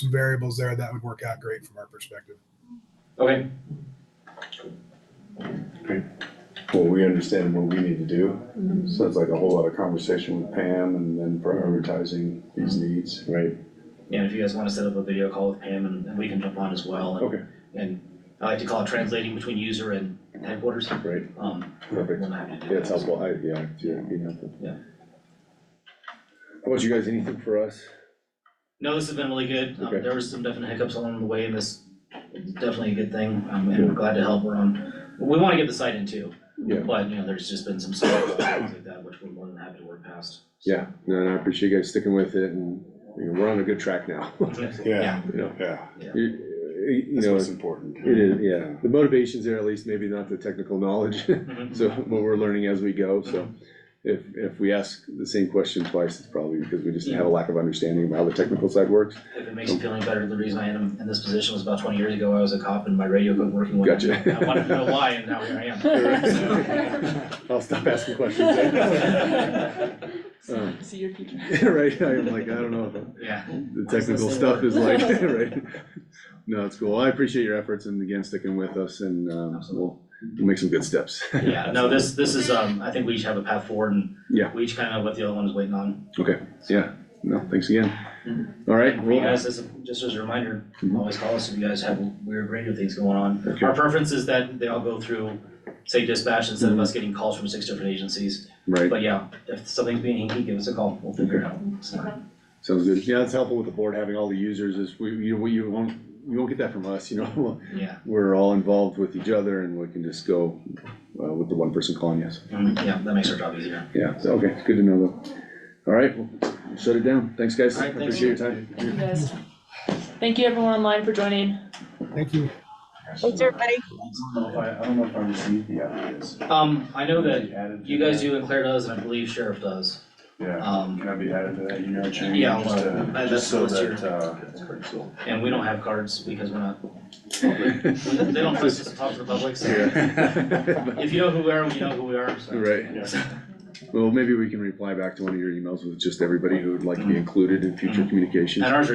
some variables there that would work out great from our perspective. Okay, Well, we understand what we need to do, Mm-hmm. so it's like a whole lot of conversation with Pam and then prioritizing these Mm-hmm. needs. right? and if you guys wanna set up a video call with Pam and, and we can jump on as well. and- Okay. And I like to call it translating between user and headquarters. Right. Um, Perfect. we're not happy to do that. Yeah, it's helpful, I, yeah, it's, yeah, it'd be helpful. Yeah. How about you guys, anything for us? No, this has been really good. Um, Okay. there was some definite hiccups along the way and this is definitely a good thing. Um, and we're glad to help around. We wanna get the site in too. Yeah. But, you know, there's just been some stuff like that, which we're more than happy to work past. Yeah, no, and I appreciate you guys sticking with it, and, you know, we're on a good track now, Yeah. you know? Yeah, You, you that's know, what's it important. is, yeah, the motivation's there at least, maybe not the technical knowledge, Mhm. so, what we're learning as we go, so. If, if we ask the same question twice, it's probably because we just have a lack of understanding of how the technical side works, If it makes you feel any better, the reason I am in this position was about twenty years ago, I was a cop and my radio wasn't working one Gotcha. night. I wanted to know why, and now here I am. I'll stop asking questions. Um, See your future. Right, I'm like, I don't know, if So, Yeah, the technical stuff is like, right? No, it's cool, I appreciate your efforts and again, sticking with us, and, um, we'll, we'll make some good steps. yeah, no, this, this is, um, I think we each have a path forward and Yeah. we each kind of know what the other one is waiting on. No, thanks again. All right, And for Mm-hmm. you well, guys, as a- just as a reminder, Mhm. always call us if you guys have weird radio things going on. Okay. Our preference is that they all go through, say dispatch instead of us getting calls from six different agencies. Mm-hmm. right, But yeah, if something's being hinky, give us a call, we'll figure it out. So, sounds good, yeah, it's helpful with the board having all the users, is we, you, we, you won't, you won't get that from us, you know? Yeah, We're all involved with each other, and we can just go, uh, with the one person calling us, Mm, yeah, that makes our job easier. yeah, so, okay, it's good to know though. All right, well, shut it down, thanks, guys, All right, thanks. appreciate your time. You guys. Thank you everyone online for joining. Thank you. Thanks, everybody. I don't know if I, I don't know if I received the ideas. Um, I know that that you guys do and Claire does, and I believe Sheriff does. Yeah, Um, can I be added to that email chain? Yeah, Just to- well, that's- Just so that's your- that, uh, and we don't have cards because we're not, they don't trust us to talk to the public, so. Yeah. If you know who we are, we know who we are, so. Right, well, maybe we can reply back to one of your emails with just everybody who would like to be included in future Mm-hmm. communications. And ours are